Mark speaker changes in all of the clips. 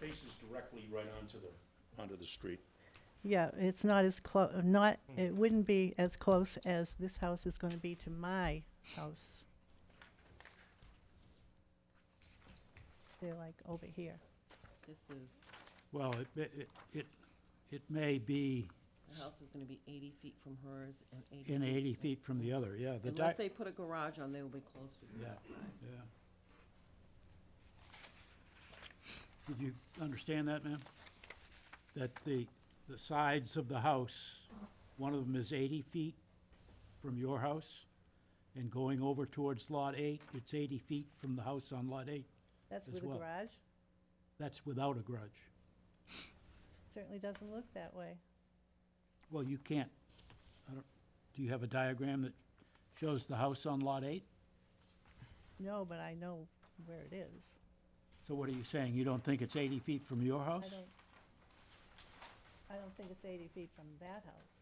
Speaker 1: faces directly right onto the, onto the street.
Speaker 2: Yeah, it's not as close, not,
Speaker 3: Hmm.
Speaker 2: it wouldn't be as close as this house is going to be to my house. They're like over here.
Speaker 4: This is,
Speaker 3: Well, it- it, it, it may be
Speaker 4: the house is gonna be eighty feet from hers and eighty.
Speaker 3: in
Speaker 4: feet
Speaker 3: 80
Speaker 4: from-
Speaker 3: feet from the other, yeah. the
Speaker 4: Unless
Speaker 3: di-
Speaker 4: they put a garage on, they will be close to the
Speaker 3: Yeah.
Speaker 4: outside.
Speaker 3: yeah. Did you understand that, ma'am? That the, the sides of the house, one of them is 80 feet from your house, and going over towards Lot 8, it's 80 feet from the house on Lot 8.
Speaker 2: That's
Speaker 3: As
Speaker 2: with a
Speaker 3: well.
Speaker 2: garage.
Speaker 3: That's without a grudge.
Speaker 2: Certainly doesn't look that way.
Speaker 3: Well, you can't, I don't, do you have a diagram that shows the house on Lot 8?
Speaker 2: No, but I know where it is.
Speaker 3: So what are you saying? You don't think it's 80 feet from your
Speaker 2: I
Speaker 3: house?
Speaker 2: don't, I don't think it's 80 feet from that house.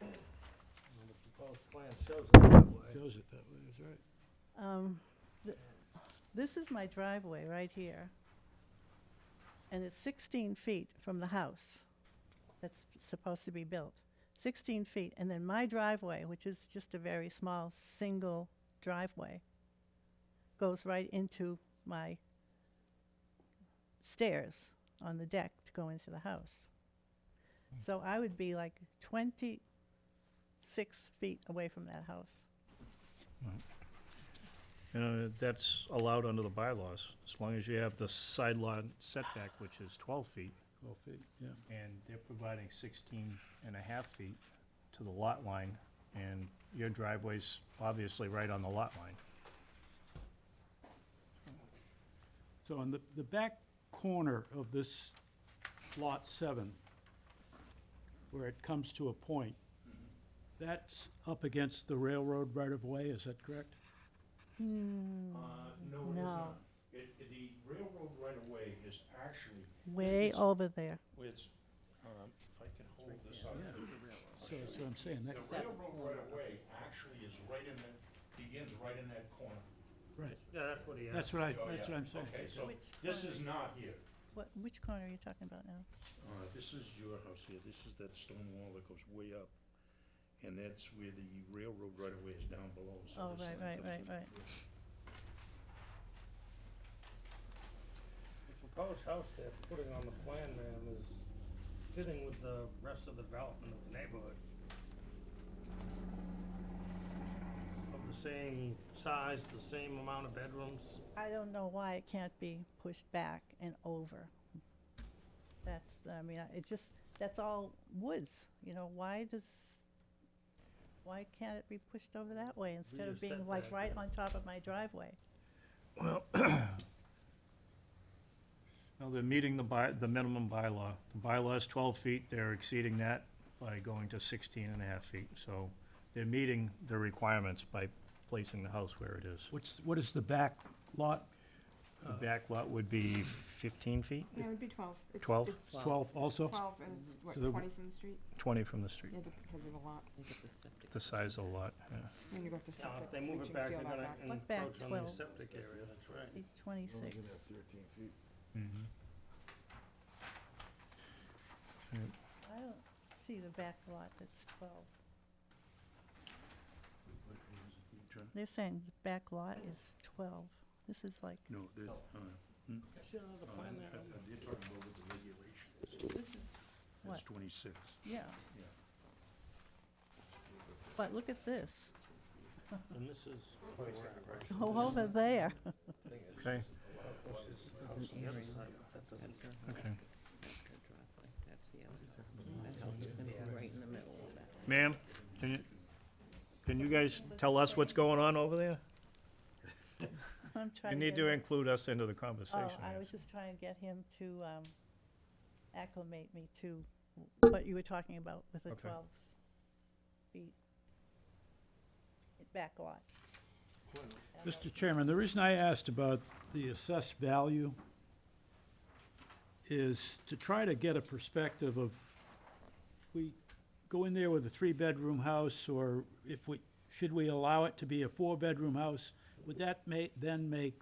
Speaker 5: The proposed plan shows it
Speaker 1: Uh,
Speaker 5: that way.
Speaker 3: Shows it that way, that's right.
Speaker 2: Um, th- This is my driveway right here. And it's 16 feet from the house that's supposed to be built. 16 feet, and then my driveway, which is just a very small, single driveway, goes right into my stairs on the deck to go into the house. So I would be like 26 feet away from that house.
Speaker 6: You know, that's allowed under the bylaws, as long as you have the side lot setback, which is twelve feet,
Speaker 3: 12 feet, yeah.
Speaker 6: and they're providing sixteen and a half feet to the lot line, and your driveway's obviously right on the lot line.
Speaker 3: So on the, the back corner of this Lot 7, where it comes to a point, that's up against the railroad right-of-way, is that correct?
Speaker 1: Uh, no, it is
Speaker 2: Mm, no.
Speaker 1: not. It, it- the railroad right-of-way is actually,
Speaker 2: Way
Speaker 1: It's-
Speaker 2: over there.
Speaker 1: it's, um, if I can hold this up.
Speaker 3: Yeah. So that's what I'm saying, that,
Speaker 1: The
Speaker 4: Except the
Speaker 1: railroad
Speaker 4: corner of
Speaker 1: right-of-way
Speaker 4: this.
Speaker 1: actually is right in that, begins right in that corner.
Speaker 3: right,
Speaker 6: Yeah, that's what he
Speaker 3: that's what I,
Speaker 1: Oh,
Speaker 3: that's
Speaker 1: yeah.
Speaker 3: what I'm saying.
Speaker 1: Okay, so
Speaker 2: Which
Speaker 1: this
Speaker 2: corner?
Speaker 1: is not here.
Speaker 2: What, which corner are you talking about now?
Speaker 1: Uh, This is your house here, this is that stone wall that goes way up, and that's where the railroad right away is down below, so
Speaker 2: Oh,
Speaker 1: this
Speaker 2: right,
Speaker 1: line
Speaker 2: right,
Speaker 1: comes
Speaker 2: right,
Speaker 1: in.
Speaker 2: right.
Speaker 5: The proposed house they're putting on the plan, ma'am, is fitting with the rest of the development of the neighborhood. Of the same size, the same amount of bedrooms.
Speaker 2: I don't know why it can't be pushed back and over. That's, the- I mean, I- it just, that's all woods, you know, why does, why can't it be pushed over that way instead of
Speaker 5: Rear
Speaker 2: being like
Speaker 5: setback,
Speaker 2: right
Speaker 5: yeah.
Speaker 2: on top of my driveway?
Speaker 6: No, they're meeting the by, the minimum bylaw. The bylaw is twelve feet, they're exceeding that by going to sixteen and a half feet, so they're meeting the requirements by placing the house where it is.
Speaker 3: What's, what is the back lot?
Speaker 6: The back lot would be fifteen feet,
Speaker 7: Yeah, it would be twelve. It's-
Speaker 6: 12?
Speaker 7: It's
Speaker 4: Wow.
Speaker 3: 12 also?
Speaker 7: twelve and it's, what,
Speaker 3: So the-
Speaker 7: twenty from the street?
Speaker 6: twenty from the street,
Speaker 7: Yeah, because of the lot,
Speaker 4: Look at the septic.
Speaker 6: the size of the lot, yeah.
Speaker 7: when you got the
Speaker 5: Now,
Speaker 7: septic.
Speaker 5: if Uh, they move it
Speaker 7: leaching
Speaker 5: back, they're
Speaker 7: field out
Speaker 5: gonna
Speaker 7: back.
Speaker 2: What back,
Speaker 5: encroach on the
Speaker 2: 12?
Speaker 5: septic area, that's right.
Speaker 2: Eight Twenty-six.
Speaker 6: Mm-hmm.
Speaker 2: I don't see the back lot that's twelve.
Speaker 1: What is it, you trying-
Speaker 2: They're saying the back lot is twelve. This is like,
Speaker 1: No, that, uh,
Speaker 5: I see another
Speaker 1: uh,
Speaker 5: plan there.
Speaker 1: they're talking about what the regulation is.
Speaker 2: this is,
Speaker 1: That's
Speaker 2: What?
Speaker 1: twenty-six.
Speaker 2: yeah. But look at this,
Speaker 5: And this is.
Speaker 2: go over there.
Speaker 6: Okay.
Speaker 5: This is the house on the other side, but that doesn't.
Speaker 4: That's her house.
Speaker 6: Okay.
Speaker 4: That's her driveway. That's the other house. That house is gonna be right in the middle of that.
Speaker 6: Ma'am, can you, can you guys tell us what's going on over there?
Speaker 2: I'm
Speaker 6: You
Speaker 2: trying to
Speaker 6: need
Speaker 2: get
Speaker 6: to
Speaker 2: him-
Speaker 6: include us into the
Speaker 2: Oh,
Speaker 6: conversation.
Speaker 2: I
Speaker 6: here.
Speaker 2: was just trying to get him to um, acclimate me to what you were talking about with the
Speaker 6: Okay.
Speaker 2: twelve feet back lot.
Speaker 3: Mr. Chairman, the reason I asked about the assessed value is to try to get a perspective of, we go in there with a three-bedroom house, or if we, should we allow it to be a four-bedroom house? Would that ma, then make